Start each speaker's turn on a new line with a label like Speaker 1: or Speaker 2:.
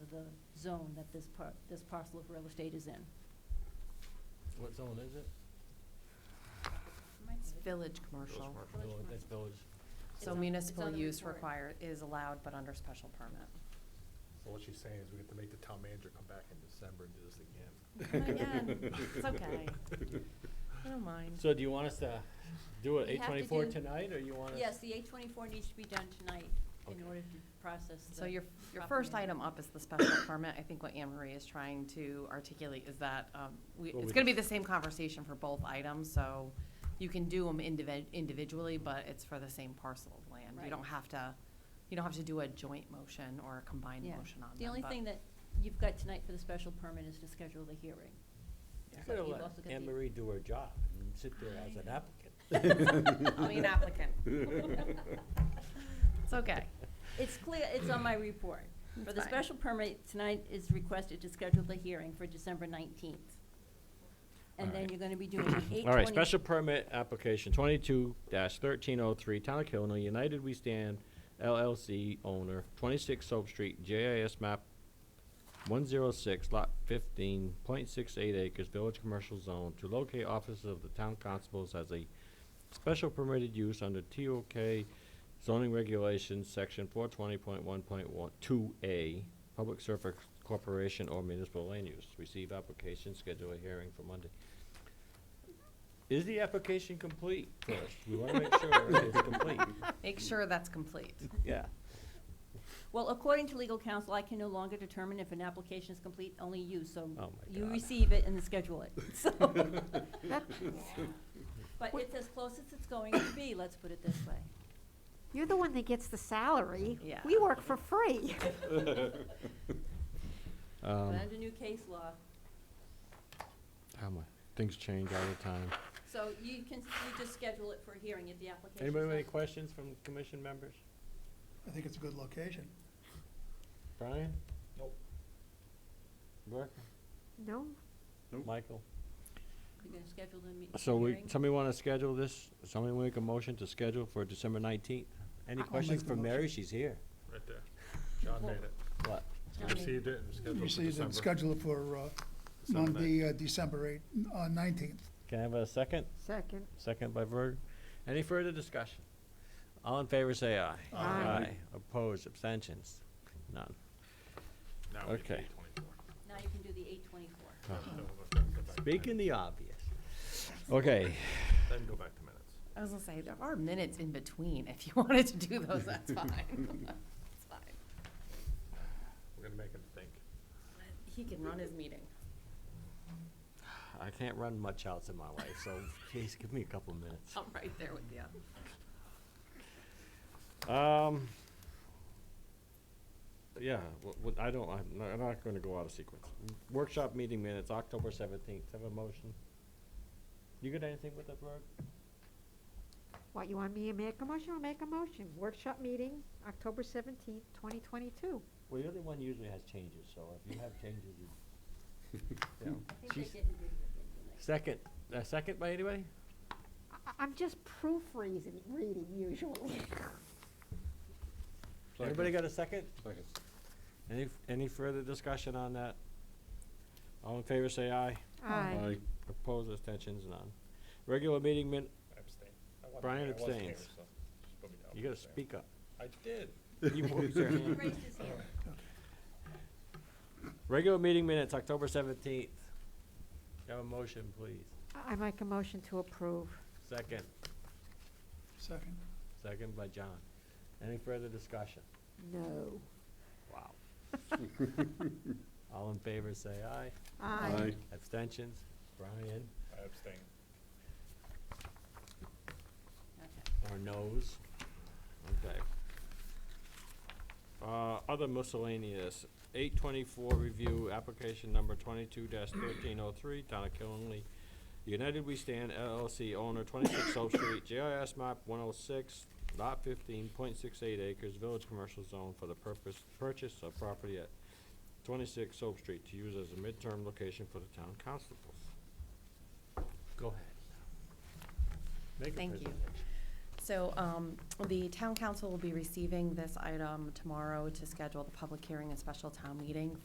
Speaker 1: the zone that this par, this parcel of real estate is in.
Speaker 2: What zone is it?
Speaker 3: It's village commercial,
Speaker 2: Village, That's village.
Speaker 3: so
Speaker 1: on- it's
Speaker 3: municipal
Speaker 1: on the
Speaker 3: use
Speaker 1: report.
Speaker 3: required, is allowed but under special permit.
Speaker 4: So what she's saying is we have to make the town manager come back in December and do this again.
Speaker 3: Come again, it's okay, I don't mind.
Speaker 2: So do you want us to do it
Speaker 1: We
Speaker 2: eight
Speaker 1: have to
Speaker 2: twenty-four
Speaker 1: do-
Speaker 2: tonight, or you want us?
Speaker 1: Yes, the eight twenty-four needs to be done tonight in
Speaker 2: Okay.
Speaker 1: order to process the.
Speaker 3: So your, your
Speaker 1: proper
Speaker 3: first
Speaker 1: manner.
Speaker 3: item up is the special permit. I think what Anne Marie is trying to articulate is that, um, we,
Speaker 2: Well,
Speaker 3: it's
Speaker 2: we
Speaker 3: gonna be
Speaker 2: just-
Speaker 3: the same conversation for both items, so you can do them individ- individually, but it's for the same parcel of land.
Speaker 1: Right.
Speaker 3: You don't have to, you don't have to do a joint motion or a combined
Speaker 1: Yeah.
Speaker 3: motion on them.
Speaker 1: The only
Speaker 3: but-
Speaker 1: thing that you've got tonight for the special permit is to schedule the hearing.
Speaker 2: You gotta
Speaker 1: You've
Speaker 2: let
Speaker 1: also got
Speaker 2: Anne
Speaker 1: the-
Speaker 2: Marie do her job and sit there as an
Speaker 3: I
Speaker 2: applicant.
Speaker 3: mean, applicant. It's okay.
Speaker 1: It's clear, it's on my report. For
Speaker 3: It's
Speaker 1: the
Speaker 3: fine.
Speaker 1: special permit, tonight is requested to schedule the hearing for December nineteenth. And then
Speaker 2: Alright.
Speaker 1: you're gonna be doing an eight twenty.
Speaker 2: All right, special permit application twenty-two thirteen oh three, Town of Killenly, United We Stand LLC owner, twenty-six Soap Street, JIS map one zero six, lot fifteen, point six eight acres, Village Commercial Zone, to locate offices of the town constables as a special permitted use under TOK zoning regulations, section four twenty point one point one, two A, public service corporation or municipal land use. Receive application, schedule a hearing for Monday. Is the application complete first? We wanna make sure it's complete.
Speaker 3: Make sure that's complete.
Speaker 2: Yeah.
Speaker 1: Well, according to legal counsel, I can no longer determine if an application is complete, only you, so
Speaker 2: Oh my
Speaker 1: you
Speaker 2: God.
Speaker 1: receive it and then schedule it, so. But it's as close as it's going to be, let's put it this way.
Speaker 5: You're the one that gets the salary.
Speaker 3: Yeah.
Speaker 5: We work for free.
Speaker 2: Um,
Speaker 1: But under new case law,
Speaker 2: how my, things change all the time.
Speaker 1: so you can, you just schedule it for a hearing if the application.
Speaker 2: Anybody have any questions from commission members?
Speaker 6: I think it's a good location.
Speaker 2: Brian?
Speaker 4: Nope.
Speaker 2: Brooke?
Speaker 5: No,
Speaker 2: Michael?
Speaker 1: You're gonna schedule the me-
Speaker 2: So we,
Speaker 1: hearing?
Speaker 2: somebody wanna schedule this? Somebody make a motion to schedule for December nineteenth? Any
Speaker 6: I'll
Speaker 2: questions
Speaker 6: make the
Speaker 2: for Mary?
Speaker 6: motion.
Speaker 2: She's here.
Speaker 4: Right there. John made it.
Speaker 2: What?
Speaker 4: He
Speaker 1: Okay.
Speaker 4: received it and scheduled
Speaker 6: You
Speaker 4: for
Speaker 6: see, it's
Speaker 4: December.
Speaker 6: scheduled for uh,
Speaker 4: December
Speaker 6: Monday, uh, December eight, uh, nineteenth.
Speaker 2: Can I have a second?
Speaker 5: second.
Speaker 2: Second by Verg. Any further discussion? All in favor, say aye.
Speaker 6: Aye.
Speaker 5: Aye.
Speaker 2: Opposed, abstentions? None.
Speaker 4: Now we get to
Speaker 2: Okay.
Speaker 4: 8:24.
Speaker 1: Now you can do the eight twenty-four.
Speaker 4: No, we'll go back- go back to
Speaker 2: Speaking
Speaker 4: minutes.
Speaker 2: the obvious. Okay,
Speaker 4: Then go back to minutes.
Speaker 3: I was gonna say, there are minutes in between. If you wanted to do those, that's fine. It's fine.
Speaker 4: We're gonna make him think.
Speaker 3: He can run his meeting.
Speaker 2: I can't run much else in my life, so please give me a couple minutes.
Speaker 3: I'm right there with you.
Speaker 1: Oh.
Speaker 2: Um, yeah, wh- wh- I don't, I'm not, I'm not gonna go out of sequence. Workshop meeting minutes, October seventeenth, have a motion. You got anything with that, Verg?
Speaker 5: What, you want me to make a motion? I'll make a motion. Workshop meeting, October seventeenth, twenty twenty-two.
Speaker 2: Well, you're the one usually has changes, so if you have changes, you. Yeah.
Speaker 1: I think they
Speaker 2: She's-
Speaker 1: didn't read it.
Speaker 2: Second, a second by anybody?
Speaker 5: I, I'm just proofreading, reading usually.
Speaker 2: Anybody got a second?
Speaker 4: Second.
Speaker 2: Any, any further discussion on that? All in favor, say aye.
Speaker 5: Aye.
Speaker 2: Opposed, abstentions, none. Regular meeting min,
Speaker 4: Abstain. I wasn't
Speaker 2: Brian
Speaker 4: here- I wasn't here,
Speaker 2: abstains.
Speaker 4: so just put me down
Speaker 2: you
Speaker 4: for
Speaker 2: gotta
Speaker 4: abstain.
Speaker 2: speak up.
Speaker 4: I did.
Speaker 2: You raised your
Speaker 1: He
Speaker 2: hand.
Speaker 1: raised his hand.
Speaker 2: Regular meeting minutes, October seventeenth. Have a motion, please.
Speaker 5: I make a motion to approve.
Speaker 2: Second,
Speaker 6: Second.
Speaker 2: second by John. Any further discussion?
Speaker 5: No.
Speaker 2: Wow. All in favor, say aye.
Speaker 5: Aye.
Speaker 2: Abstentions? Brian,
Speaker 4: I abstained.
Speaker 1: Okay.
Speaker 2: or noes? Okay. Uh, other miscellaneous, eight twenty-four review, application number twenty-two thirteen oh three, Town of Killenly. United We Stand LLC owner, twenty-six Soap Street, GIS map one oh six, lot fifteen, point six eight acres, village commercial zone for the purpose, purchase of property at twenty-six Soap Street to use as a midterm location for the town constables. Go ahead. Make a
Speaker 3: Thank you.
Speaker 2: presentation.
Speaker 3: So um, the town council will be receiving this item tomorrow to schedule the public hearing and special town meeting